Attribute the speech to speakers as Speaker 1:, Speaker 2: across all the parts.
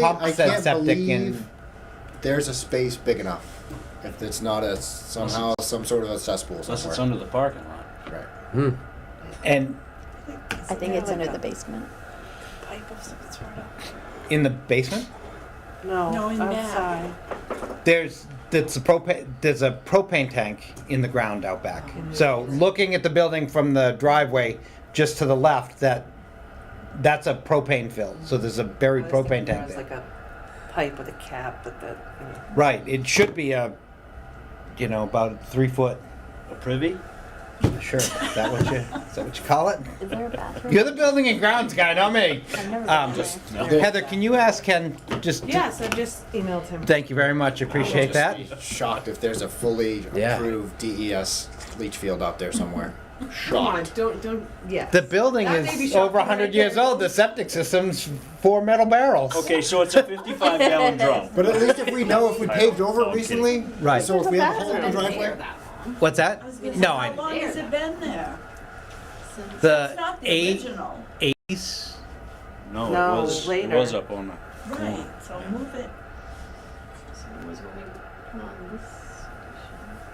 Speaker 1: pump
Speaker 2: I
Speaker 1: said
Speaker 2: can't
Speaker 1: septic in-
Speaker 2: believe There's a space big enough. If it's not a somehow some sort of a cesspool
Speaker 3: Unless it's
Speaker 2: somewhere.
Speaker 3: under the parking lot.
Speaker 2: right.
Speaker 1: And
Speaker 4: I think it's under the basement.
Speaker 5: Pipe of some sort of.
Speaker 1: in the basement,
Speaker 5: No,
Speaker 6: No, in back.
Speaker 5: outside.
Speaker 1: there's that's a propane there's a propane tank in the ground out back. So looking at the building from the driveway just to the left, that that's a propane fill. So there's a buried
Speaker 5: I
Speaker 6: Oh,
Speaker 5: was
Speaker 1: propane
Speaker 5: thinking
Speaker 1: tank
Speaker 5: It was
Speaker 1: there.
Speaker 5: like a pipe with a cap, but the, you know,
Speaker 1: Right. It should be a you know about three foot.
Speaker 3: A privy?
Speaker 1: Sure. Is that what you is that what you call it?
Speaker 4: Is there a bathroom?
Speaker 1: You're the building and grounds guy, not me.
Speaker 4: I've never
Speaker 1: Um,
Speaker 4: been there.
Speaker 1: Heather, can you ask Ken just?
Speaker 6: Yeah, so just emailed him.
Speaker 1: Thank you very much. Appreciate that.
Speaker 2: Shocked if there's a fully
Speaker 1: Yeah.
Speaker 2: approved DES leach field out there somewhere.
Speaker 6: Come on,
Speaker 2: Shocked.
Speaker 6: don't, don't, yeah.
Speaker 1: The building
Speaker 6: That may be
Speaker 1: is
Speaker 6: shocking
Speaker 1: over 100
Speaker 6: right
Speaker 1: years
Speaker 6: there.
Speaker 1: old. The septic system's four metal barrels.
Speaker 3: Okay, so it's a 55 gallon drum.
Speaker 2: But at least if we know if we paved over
Speaker 3: I'm kidding.
Speaker 2: recently,
Speaker 1: Right.
Speaker 2: So if we have a hole in the
Speaker 4: There's a bathroom in
Speaker 2: driveway,
Speaker 1: What's that?
Speaker 6: was gonna say,
Speaker 1: No,
Speaker 6: How
Speaker 1: I
Speaker 6: long has it been there? It's
Speaker 1: the
Speaker 6: not the
Speaker 1: Uh, eight
Speaker 6: original.
Speaker 1: eighties.
Speaker 3: No,
Speaker 5: No,
Speaker 3: it was, it
Speaker 5: later.
Speaker 3: was up on the,
Speaker 6: Right, so move it.
Speaker 7: So it was when we put on this.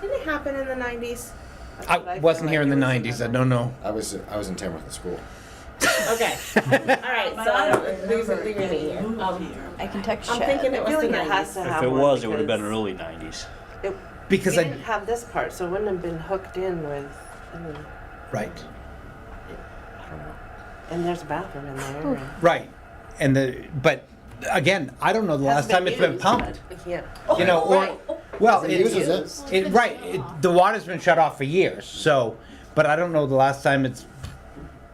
Speaker 5: Didn't it happen in the nineties?
Speaker 1: I wasn't here in the nineties. I don't know.
Speaker 2: I was I was in Tamworth at school.
Speaker 7: Okay. All right.
Speaker 6: But
Speaker 7: So
Speaker 6: I
Speaker 7: I
Speaker 6: don't
Speaker 7: don't lose it.
Speaker 6: remember
Speaker 7: Leave me
Speaker 6: getting
Speaker 7: here.
Speaker 6: moved
Speaker 7: Um,
Speaker 6: here.
Speaker 4: I can text
Speaker 7: I'm
Speaker 4: Chad.
Speaker 7: thinking
Speaker 5: I
Speaker 7: it was
Speaker 5: feel
Speaker 7: the
Speaker 5: like it has
Speaker 7: 90s.
Speaker 5: to
Speaker 3: if
Speaker 5: have
Speaker 3: it
Speaker 5: one
Speaker 3: was, it would have been
Speaker 5: because
Speaker 3: early 90s.
Speaker 5: It, we
Speaker 1: Because I
Speaker 5: didn't have this part, so it wouldn't have been hooked in with, I mean,
Speaker 1: right,
Speaker 5: I don't know. And there's a bathroom in there. and-
Speaker 1: right, and the but again, I don't know the last
Speaker 5: Hasn't
Speaker 1: time it's been
Speaker 5: used,
Speaker 1: pumped.
Speaker 5: but We can't.
Speaker 6: Oh,
Speaker 1: You know,
Speaker 5: right.
Speaker 1: or well,
Speaker 2: It uses
Speaker 1: it's,
Speaker 2: it.
Speaker 1: it right. It, the water's been shut off for years. So, but I don't know the last time it's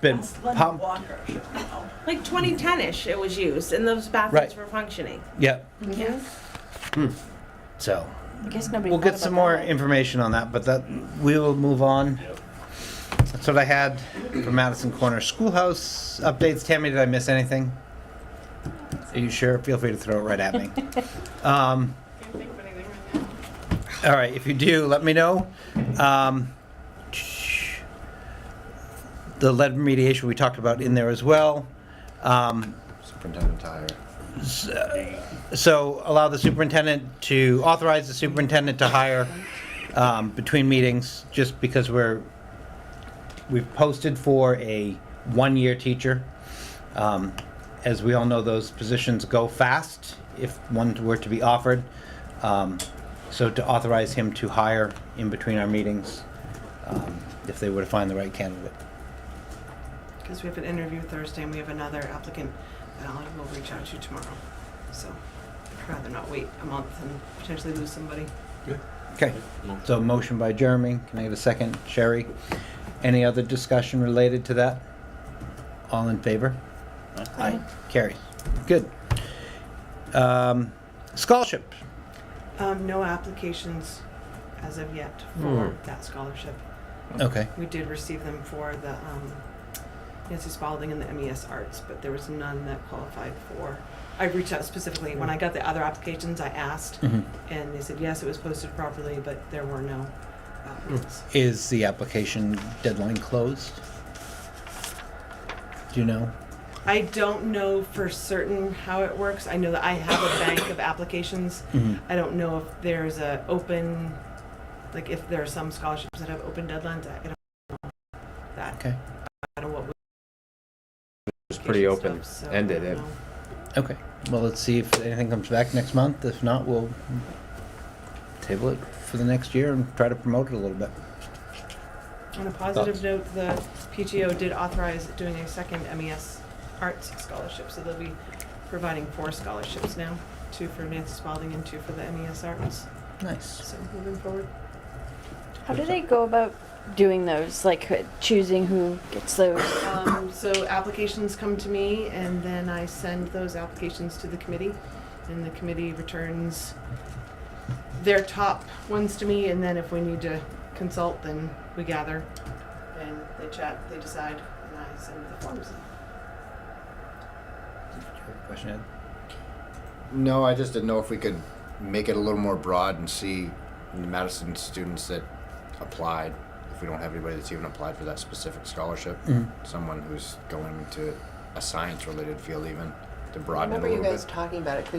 Speaker 1: been
Speaker 6: It's Linda
Speaker 1: pumped.
Speaker 6: Walker, you know.
Speaker 7: Like 2010ish, it was used, and those bathrooms
Speaker 1: Right.
Speaker 7: were functioning.
Speaker 1: Yeah.
Speaker 5: Mm-hmm.
Speaker 6: Yeah.
Speaker 1: So
Speaker 4: I guess nobody.
Speaker 1: we'll
Speaker 4: thought
Speaker 1: get some
Speaker 4: about
Speaker 1: more
Speaker 4: that.
Speaker 1: information on that, but that we will move on.
Speaker 3: Yep.
Speaker 1: That's what I had for Madison Corner Schoolhouse updates. Tammy, did I miss anything? Are you sure? Feel free to throw it right at me. um,
Speaker 7: Can't think of anything right now.
Speaker 1: all right, if you do, let me know. Um, the lead remediation we talked about in there as well. Um,
Speaker 2: Superintendent Tyre.
Speaker 1: So allow the superintendent to, authorize the superintendent to hire um, between meetings, just because we're, we've posted for a one-year teacher. Um, As we all know, those positions go fast if one were to be offered. Um, So to authorize him to hire in between our meetings, um, if they were to find the right candidate.
Speaker 6: Because we have an interview Thursday and we have another applicant, and I will reach out to you tomorrow. So I'd rather not wait a month and potentially lose somebody.
Speaker 1: Okay, so motion by Jeremy, can I get a second? Sherry, any other discussion related to that? All in favor? Aye. Carries, good. Um, Scholarship,
Speaker 6: Um, no applications as of yet for that scholarship.
Speaker 1: okay,
Speaker 6: We did receive them for the um, Nancy Spalding and the MES Arts, but there was none that qualified for. I reached out specifically when I got the other applications. I asked,
Speaker 1: Mhm.
Speaker 6: and they said yes, it was posted properly, but there were no uh, applicants.
Speaker 1: is the application deadline closed? Do you know?
Speaker 6: I don't know for certain how it works. I know that I have a bank of applications.
Speaker 1: Mhm.
Speaker 6: I don't know if there's a open, like if there are some scholarships that have open deadlines. I I don't know that.
Speaker 1: Okay.
Speaker 6: I don't know what.
Speaker 8: was pretty open ended. It,
Speaker 1: Okay, well, let's see if anything comes back next month, if not, we'll table it for the next year and try to promote it a little bit.
Speaker 6: On a positive note, the PTO did authorize doing a second MES Arts Scholarship, so they'll be providing four scholarships now, two for Nancy Spalding and two for the MES Arts,
Speaker 1: Nice.
Speaker 6: so moving forward.
Speaker 4: How do they go about doing those? Like uh, choosing who gets those?
Speaker 6: Um, so applications come to me, and then I send those applications to the committee, and the committee returns their top ones to me, and then if we need to consult, then we gather, and they chat, they decide, and I send the forms.
Speaker 1: Question, Ed?
Speaker 2: No, I just didn't know if we could make it a little more broad and see Madison students that applied. If we don't have anybody that's even applied for that specific scholarship, someone who's going to a science-related field, even
Speaker 9: to
Speaker 6: I
Speaker 9: broaden it a
Speaker 6: remember you
Speaker 9: little
Speaker 6: guys
Speaker 9: bit.
Speaker 6: talking about it, 'cause